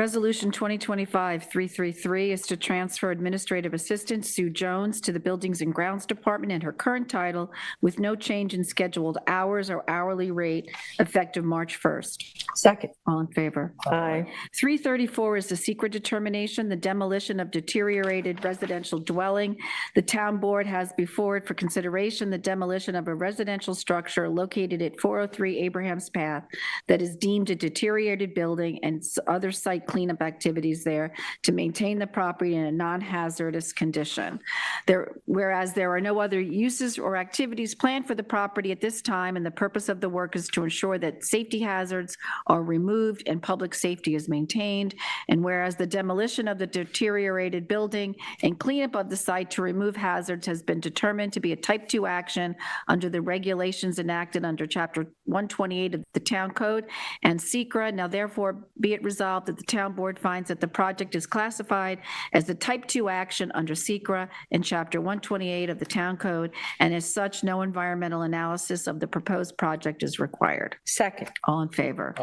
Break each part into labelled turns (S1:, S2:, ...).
S1: Resolution 2025-333 is to transfer Administrative Assistant Sue Jones to the Buildings and Grounds Department in her current title with no change in scheduled hours or hourly rate effective March 1st.
S2: Second.
S1: All in favor?
S2: Aye.
S1: 334 is the secret determination, the demolition of deteriorated residential dwelling. The town board has before it for consideration the demolition of a residential structure located at 403 Abraham's Path that is deemed a deteriorated building and s- other site cleanup activities there to maintain the property in a non-hazardous condition. There, whereas there are no other uses or activities planned for the property at this time, and the purpose of the work is to ensure that safety hazards are removed and public safety is maintained. And whereas the demolition of the deteriorated building and cleanup of the site to remove hazards has been determined to be a type 2 action under the regulations enacted under Chapter 128 of the Town Code and Secra. Now therefore be it resolved that the town board finds that the project is classified as a type 2 action under Secra in Chapter 128 of the Town Code, and as such, no environmental analysis of the proposed project is required.
S2: Second.
S1: All in favor?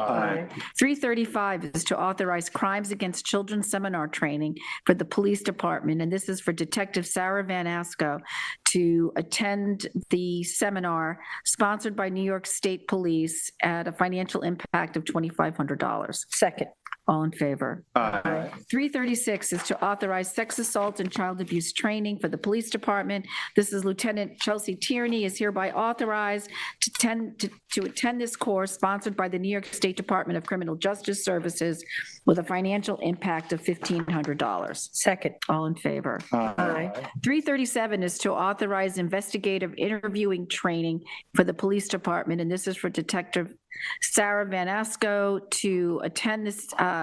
S1: 335 is to authorize crimes against children seminar training for the police department, and this is for Detective Sarah Van Asco to attend the seminar sponsored by New York State Police at a financial impact of $2,500.
S2: Second.
S1: All in favor?
S3: Aye.
S1: 336 is to authorize sex assault and child abuse training for the police department. This is Lieutenant Chelsea Tierney is hereby authorized to attend, to- to attend this course sponsored by the New York State Department of Criminal Justice Services with a financial impact of $1,500.
S2: Second.
S1: All in favor?
S2: Aye.
S1: 337 is to authorize investigative interviewing training for the police department, and this is for Detective Sarah Van Asco to attend this uh,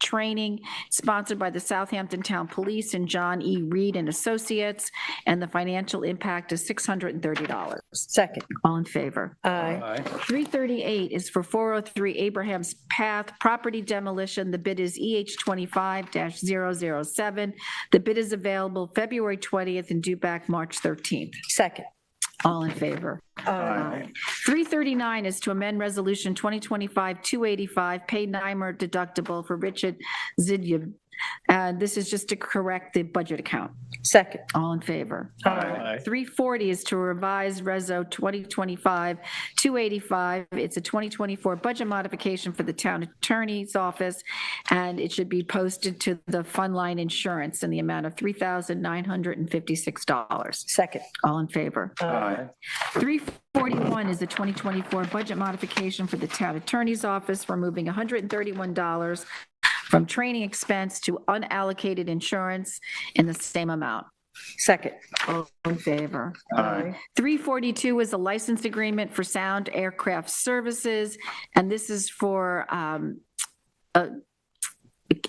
S1: training sponsored by the Southampton Town Police and John E. Reed and Associates, and the financial impact is $630.
S2: Second.
S1: All in favor?
S2: Aye.
S1: 338 is for 403 Abraham's Path Property Demolition. The bid is EH 25-007. The bid is available February 20th and due back March 13th.
S2: Second.
S1: All in favor?
S2: Aye.
S1: 339 is to amend Resolution 2025-285, pay NYMER deductible for Richard Zidian. And this is just to correct the budget account.
S2: Second.
S1: All in favor? 340 is to revise Reso 2025-285. It's a 2024 budget modification for the town attorney's office, and it should be posted to the fund line insurance in the amount of $3,956.
S2: Second.
S1: All in favor?
S3: Aye.
S1: 341 is the 2024 budget modification for the town attorney's office, removing $131 from training expense to unallocated insurance in the same amount.
S2: Second.
S1: All in favor?
S3: Aye.
S1: 342 is a license agreement for Sound Aircraft Services, and this is for um, a-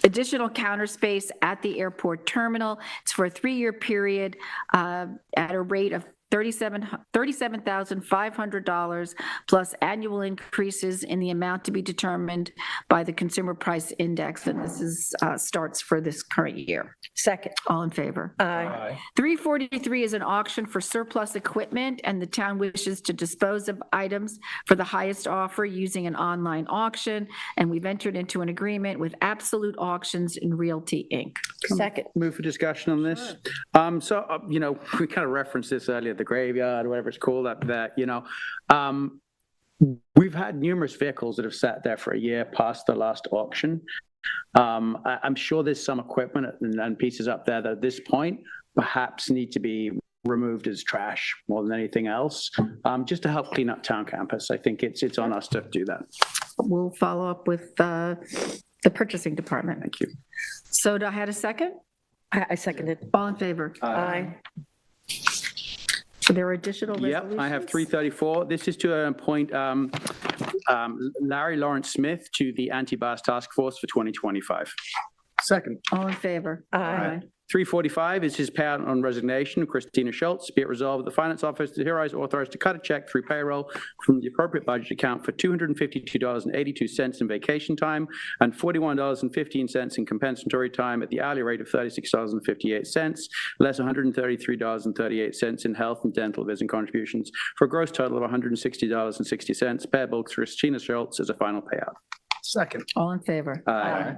S1: additional counter space at the airport terminal. It's for a three-year period uh, at a rate of 37 $37,500 plus annual increases in the amount to be determined by the Consumer Price Index, and this is, uh, starts for this current year.
S2: Second.
S1: All in favor?
S2: Aye.
S1: 343 is an auction for surplus equipment, and the town wishes to dispose of items for the highest offer using an online auction, and we've entered into an agreement with Absolute Auctions and Realty, Inc.
S2: Second.
S4: Move for discussion on this. Um, so, uh, you know, we kind of referenced this earlier, the graveyard, whatever it's called up there, you know. Um, we've had numerous vehicles that have sat there for a year past the last auction. Um, I, I'm sure there's some equipment and, and pieces up there that at this point perhaps need to be removed as trash more than anything else, um, just to help clean up town campus. I think it's, it's on us to do that.
S1: We'll follow up with uh, the purchasing department.
S4: Thank you.
S1: So do I had a second?
S2: I I seconded.
S1: All in favor?
S4: Uh,
S2: Aye.
S1: So there are additional
S4: Yep,
S1: resolutions?
S4: I have 334. This is to uh, appoint um, um, Larry Lawrence Smith to the Anti-Bias Task Force for 2025.
S3: Second.
S1: All in favor?
S2: Aye.
S4: 345 is his payout on resignation, of Christina Schultz. Be it resolved, that the Finance Office is hereby authorized to cut a check through payroll from the appropriate budget account for $252.82 in vacation time and $41.15 in compensatory time at the hourly rate of $36.58, less $133.38 in health and dental vision contributions, for a gross total of $160.60, payable to Christina Schultz as a final payout.
S3: Second.
S1: All in favor?
S4: Aye.